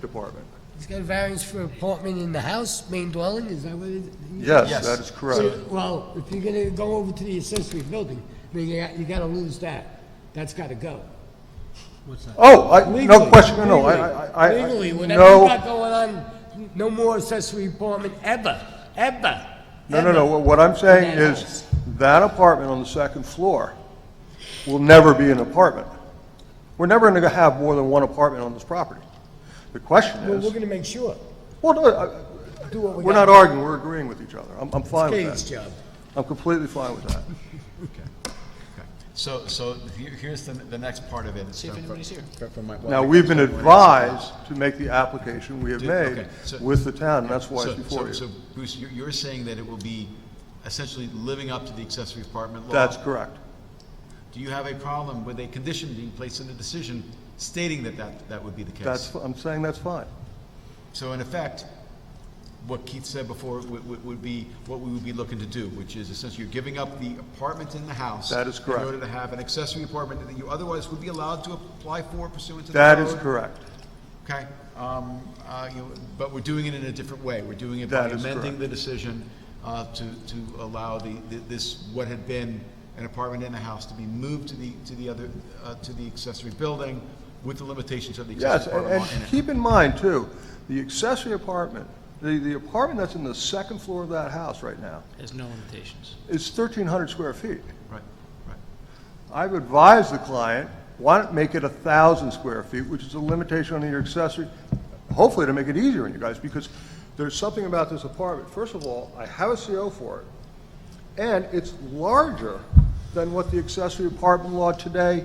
department. He's got a variance for apartment in the house, main dwelling, is that what it is? Yes, that is correct. So, Well, if you're gonna go over to the accessory building, then you, got- you gotta lose that. That's gotta go. Oh, I, no Legally, question, no, no, I, legally, I- I, I, Legally, whatever you no, got going on, no more accessory apartment ever, ever. no, no, ever. no, what- what I'm saying that is, house. that apartment on the second floor will never be an apartment. We're never gonna have more than one apartment on this property. The question Well, we're is, gonna make sure, well, no, I- do what we We're not gotta arguing, we're agreeing with each other. I'm, I'm fine do. Katie's with that. job. I'm completely fine with that. So, so here- here's the, the next part of it. See if anybody's here. Now, we've been advised to make the application we have Did- made okay, so- with the town, and that's why it's So, before so, you. so Bruce, you're, you're saying that it will be essentially living up to the accessory apartment law? That's correct. Do you have a problem with a condition being placed in the decision stating that that, that would be the case? That's, I'm saying that's fine. So in effect, what Keith said before would, would, would be what we would be looking to do, which is essentially you're giving up the apartment in the house. That is correct. In order to have an accessory apartment that you otherwise would be allowed to apply for pursuant to the That is code. correct. Okay, um, uh, you, know, but we're doing it in a different way. We're doing it by That is amending correct. the decision, uh, to, to allow the, th- this, what had been an apartment and a house to be moved to the, to the other, uh, to the accessory building with the limitations of the Yes, accessory and, apartment. law in and it. keep in mind too, the accessory apartment, the, the apartment that's in the second floor of that house right now There's no limitations. is thirteen hundred square feet. Right, right. I've advised the client, why not make it a thousand square feet, which is a limitation on your accessory, hopefully to make it easier on you guys, because there's something about this apartment. First of all, I have a CO for it, and it's larger than what the accessory apartment law today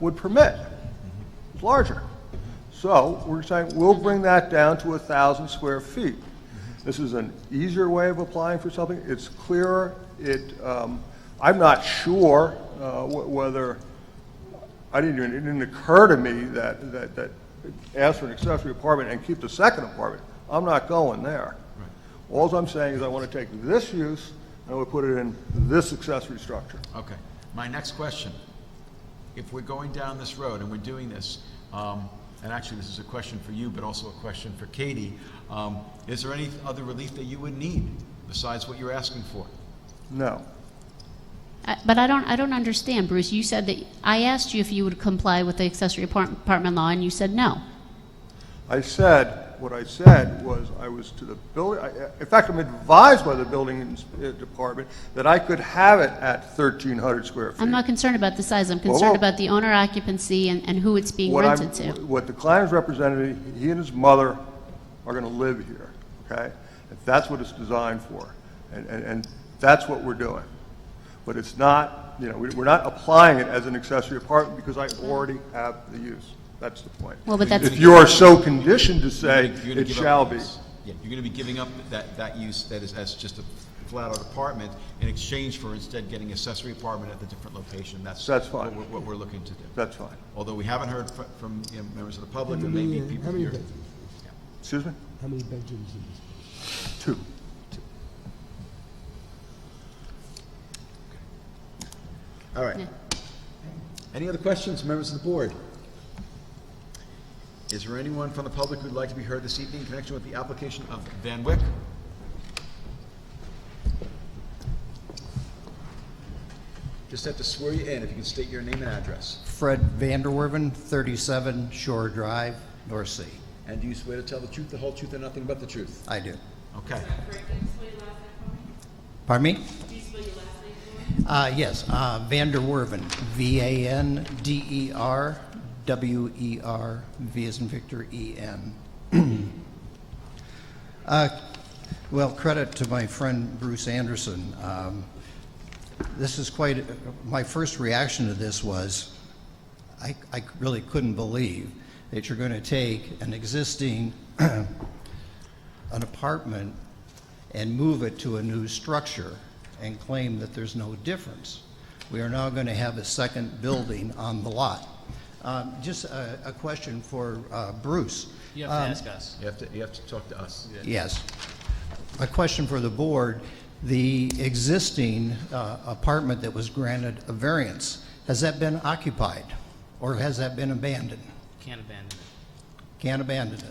would permit. It's larger. So, we're saying, we'll bring that down to a thousand square feet. This is an easier way of applying for something, it's clearer, it, um, I'm not sure, uh, wh- whether, I didn't even, it didn't occur to me that, that, that ask for an accessory apartment and keep the second apartment. I'm not going there. Alls I'm saying is I want to take this use and I would put it in this accessory structure. Okay, my next question, if we're going down this road and we're doing this, um, and actually, this is a question for you, but also a question for Katie, um, is there any other relief that you would need besides what you're asking for? No. I- But I don't, I don't understand, Bruce. You said that, I asked you if you would comply with the accessory apart- apartment law, and you said no. I said, what I said was, I was to the building, I- in fact, I'm advised by the building ins- uh, department that I could have it at 1,300 square feet. I'm not concerned about the size. I'm Whoa, concerned whoa. about the owner occupancy and, and who it's being What I'm- rented to. What the client's representative, he and his mother are going to live here, okay? If That's what it's designed for, and, and, and that's what we're doing. But it's not, you know, we- we're not applying it as an accessory apartment because I already have the use. That's the point. Well, but that's- If you are so conditioned to You're say, gonna- you're gonna it give up shall on be. this. Yeah, you're gonna be giving up that, that use that is, as just a flat-out apartment in exchange for instead getting accessory apartment at the different location, that's. That's fine. What, we're- what we're looking to do. That's fine. Although we haven't heard fr- from, you know, members of the public, and maybe people How many here. bedrooms? Excuse me? How many bedrooms is this? Two. All right. Any other questions, members of the board? Is there anyone from the public who'd like to be heard this evening in connection with the application of Van Wyck? Just have to swear you in if you can state your name and address. Fred Vanderwerven, 37 Shore Drive, North Sea. And do you swear to tell the truth, the whole truth, and nothing but the truth? I do. Okay. Pardon me? Uh, yes, uh, Vanderwerven, E V-A-N-D-E-R-W-E-R, E V as in Victor, E-N. Uh, Well, credit to my friend Bruce Anderson. Um, This is quite, my first reaction to this was, I, I really couldn't believe that you're going to take an existing, an apartment and move it to a new structure and claim that there's no difference. We are now going to have a second building on the lot. Um, Just a, a question for uh, Bruce. You have to ask us. You have to, you have to talk to us. Yes. A question for the board. The existing uh, apartment that was granted a variance, has that been occupied? Or has that been abandoned? Can't abandon it. Can't abandon it.